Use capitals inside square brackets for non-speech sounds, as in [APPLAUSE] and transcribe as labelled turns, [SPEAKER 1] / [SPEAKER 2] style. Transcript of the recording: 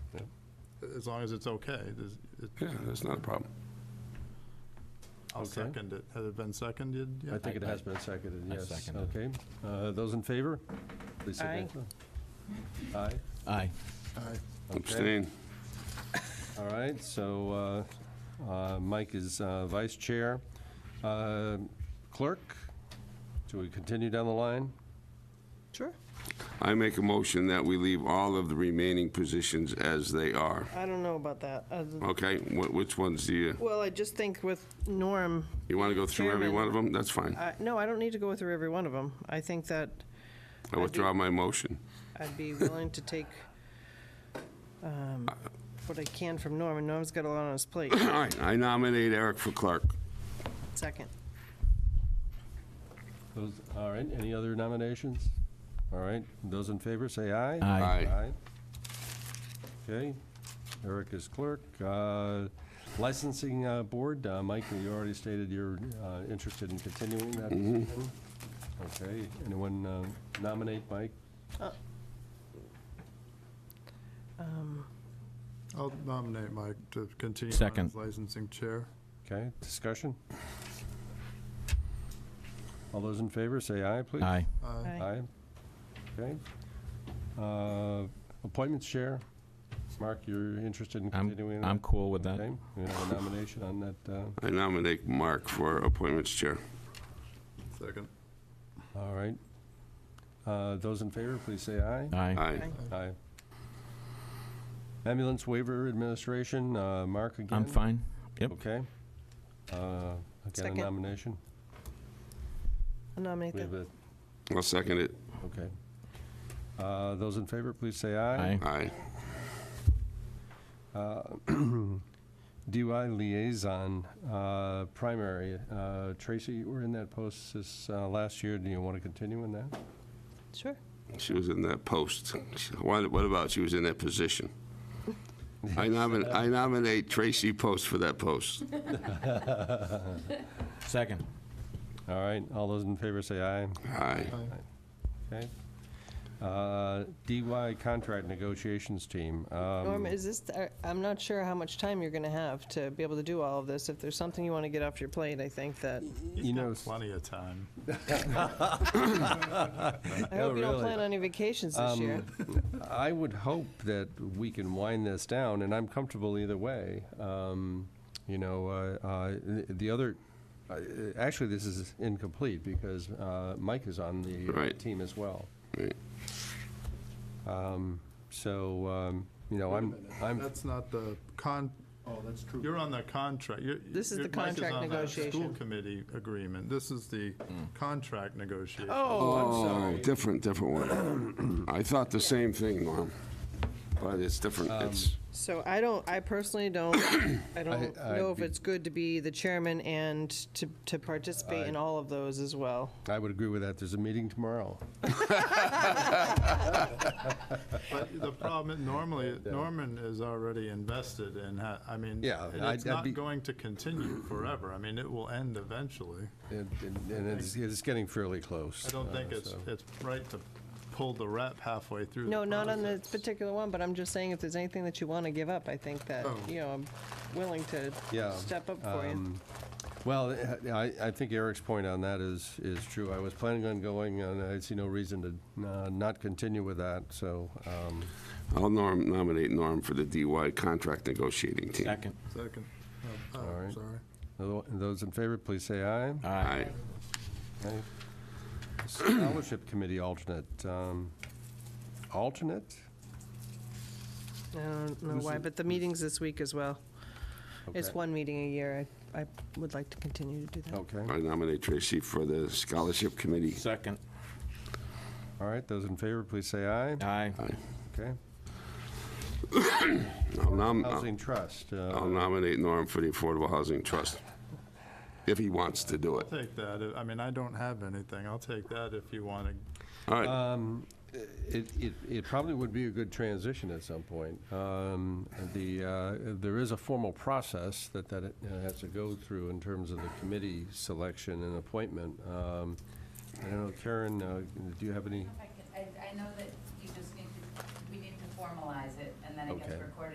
[SPEAKER 1] as long as it's okay. There's- it-
[SPEAKER 2] Yeah, that's not a problem.
[SPEAKER 1] I'll
[SPEAKER 3] Okay.
[SPEAKER 1] second it. Has it been seconded
[SPEAKER 3] I
[SPEAKER 1] yet?
[SPEAKER 3] think it has been seconded,
[SPEAKER 4] I
[SPEAKER 3] yes.
[SPEAKER 4] second it.
[SPEAKER 3] Okay, Uh, those in favor? please
[SPEAKER 5] Aye.
[SPEAKER 3] signify. Aye,
[SPEAKER 4] Aye.
[SPEAKER 1] Aye.
[SPEAKER 3] okay,
[SPEAKER 2] Abstain.
[SPEAKER 3] all right, so uh, uh, Mike is uh, vice chair. Uh, Clerk, do we continue down the line?
[SPEAKER 5] Sure.
[SPEAKER 2] I make a motion that we leave all of the remaining positions as they are.
[SPEAKER 5] I don't know about that. Uh,
[SPEAKER 2] Okay, wh- which ones do you,
[SPEAKER 5] Well, I just think with Norm,
[SPEAKER 2] you want to go through every
[SPEAKER 5] Chairman.
[SPEAKER 2] one of them? That's fine.
[SPEAKER 5] I- no, I don't need to go through every one of them. I think that
[SPEAKER 2] I withdraw my motion.
[SPEAKER 5] I'd be willing to take um, what I can from Norm, and Norm's got a lot on his plate.
[SPEAKER 2] All right, I nominate Eric for clerk.
[SPEAKER 5] Second.
[SPEAKER 3] Those, all right, any other nominations? All right, those in favor, say aye.
[SPEAKER 4] Aye.
[SPEAKER 2] Aye.
[SPEAKER 3] Okay, Eric is clerk. Uh, Licensing uh, Board, uh, Mike, you already stated you're uh, interested in continuing that position. Okay, anyone uh, nominate Mike?
[SPEAKER 1] I'll nominate Mike to continue on
[SPEAKER 4] Second.
[SPEAKER 1] as licensing chair.
[SPEAKER 3] Okay, discussion? All those in favor, say aye, please.
[SPEAKER 4] Aye.
[SPEAKER 1] Aye.
[SPEAKER 5] Aye.
[SPEAKER 3] Aye. Okay. Uh, Appointments Chair, Mark, you're interested in continuing?
[SPEAKER 4] I'm,
[SPEAKER 3] that?
[SPEAKER 4] I'm cool with
[SPEAKER 3] Okay,
[SPEAKER 4] that.
[SPEAKER 3] we have a nomination on that. uh,
[SPEAKER 2] I nominate Mark for appointments chair.
[SPEAKER 1] Second.
[SPEAKER 3] All right. Uh, Those in favor, please say aye.
[SPEAKER 4] Aye.
[SPEAKER 2] Aye.
[SPEAKER 3] Aye. Ambulance Waiver Administration, uh, Mark again?
[SPEAKER 4] I'm fine. Yep.
[SPEAKER 3] Okay. Uh, Again,
[SPEAKER 5] Second.
[SPEAKER 3] a nomination?
[SPEAKER 5] I'll nominate
[SPEAKER 3] We have
[SPEAKER 5] that.
[SPEAKER 3] a-
[SPEAKER 2] I'll second it.
[SPEAKER 3] Okay. Uh, Those in favor, please say aye.
[SPEAKER 4] Aye.
[SPEAKER 2] Aye.
[SPEAKER 3] DUI Liaison, uh, Primary. Uh, Tracy, you were in that post this uh, last year. Do you want to continue in that?
[SPEAKER 5] Sure.
[SPEAKER 2] She was in that post. What what about she was in that position? I nominate, I nominate Tracy Post for that post.
[SPEAKER 4] Second.
[SPEAKER 3] All right, all those in favor, say aye.
[SPEAKER 2] Aye.
[SPEAKER 3] Okay. Uh, DY Contract Negotiations Team. um,
[SPEAKER 5] Norm, is this, I- I'm not sure how much time you're going to have to be able to do all of this. If there's something you want to get off your plate, I think that,
[SPEAKER 3] [LAUGHS] You know, s-
[SPEAKER 1] Plenty of time.
[SPEAKER 5] I
[SPEAKER 3] Oh,
[SPEAKER 5] hope you don't
[SPEAKER 3] really? Um,
[SPEAKER 5] plan on any vacations this year.
[SPEAKER 3] I would hope that we can wind this down, and I'm comfortable either way. Um, You know, uh, uh, the- the other, uh, actually, this is incomplete because uh, Mike is on the
[SPEAKER 2] Right.
[SPEAKER 3] team as well.
[SPEAKER 2] Right.
[SPEAKER 3] So, um, you know, I'm, I'm,
[SPEAKER 1] That's not the con,
[SPEAKER 6] Oh, that's true.
[SPEAKER 1] you're on the contract. You're-
[SPEAKER 5] This is
[SPEAKER 1] you're-
[SPEAKER 5] the
[SPEAKER 1] Mike
[SPEAKER 5] contract
[SPEAKER 1] on the School
[SPEAKER 5] negotiation.
[SPEAKER 1] committee agreement. This is the
[SPEAKER 3] Hmm.
[SPEAKER 1] contract negotiation.
[SPEAKER 2] Oh, different, different one. [CLEARS THROAT] I thought the same thing, Norm, but it's different.
[SPEAKER 3] Um,
[SPEAKER 2] It's,
[SPEAKER 5] So I don't, I personally don't, I don't
[SPEAKER 3] I-
[SPEAKER 5] know
[SPEAKER 3] I'd
[SPEAKER 5] if
[SPEAKER 3] be-
[SPEAKER 5] it's good to be the chairman and to, to participate in all of those as well.
[SPEAKER 3] I would agree with that. There's a meeting tomorrow.
[SPEAKER 1] But the problem,
[SPEAKER 3] [LAUGHS]
[SPEAKER 1] normally, Norman is already invested in, ha- I mean,
[SPEAKER 3] Yeah,
[SPEAKER 1] and
[SPEAKER 3] I'd-
[SPEAKER 1] it's
[SPEAKER 3] I'd be-
[SPEAKER 1] not going to continue forever. I mean, it will end eventually.
[SPEAKER 3] And and- and it's, it's getting fairly close.
[SPEAKER 1] I don't
[SPEAKER 3] uh,
[SPEAKER 1] think it's,
[SPEAKER 3] so.
[SPEAKER 1] it's right to pull the rep halfway through.
[SPEAKER 5] No,
[SPEAKER 1] the
[SPEAKER 5] not on this
[SPEAKER 1] process.
[SPEAKER 5] particular one, but I'm just saying if there's anything that you want to give up, I think that,
[SPEAKER 1] Oh.
[SPEAKER 5] you know, I'm willing to
[SPEAKER 3] Yeah, um,
[SPEAKER 5] step up for you.
[SPEAKER 3] Well, I, I think Eric's point on that is, is true. I was planning on going, and I see no reason to uh, not continue with that, so, um,
[SPEAKER 2] I'll norm, nominate Norm for the DY contract negotiating team.
[SPEAKER 4] Second.
[SPEAKER 1] Second. Oh,
[SPEAKER 3] All
[SPEAKER 1] oh,
[SPEAKER 3] right.
[SPEAKER 1] sorry.
[SPEAKER 3] tho- those in favor, please say aye.
[SPEAKER 4] Aye.
[SPEAKER 2] Aye.
[SPEAKER 3] Aye. Scholarship Committee alternate, um, alternate?
[SPEAKER 5] I don't know why, but the meeting's this week as well. It's
[SPEAKER 3] Okay. Oh,
[SPEAKER 5] one meeting a year. I, I would like to continue to do that.
[SPEAKER 3] Okay,
[SPEAKER 2] I nominate Tracy for the scholarship committee.
[SPEAKER 4] Second.
[SPEAKER 3] all right, those in favor, please say aye.
[SPEAKER 4] Aye.
[SPEAKER 2] Aye.
[SPEAKER 3] Okay.
[SPEAKER 2] I'll nom-
[SPEAKER 3] Housing Trust, uh,
[SPEAKER 2] I'll nominate Norm for the Affordable Housing Trust, if he wants to do it.
[SPEAKER 1] I'll take that. I mean, I don't have anything. I'll take that if you want to.
[SPEAKER 2] All right,
[SPEAKER 3] Um, it, it, it probably would be a good transition at some point. Um, The, uh, there is a formal process that, that it uh, has to go through in terms of the committee selection and appointment. Um, I don't know, Karen, uh, do you have any?
[SPEAKER 7] I, I know that you just need to, we need to formalize it, and then it gets
[SPEAKER 3] Okay.
[SPEAKER 7] recorded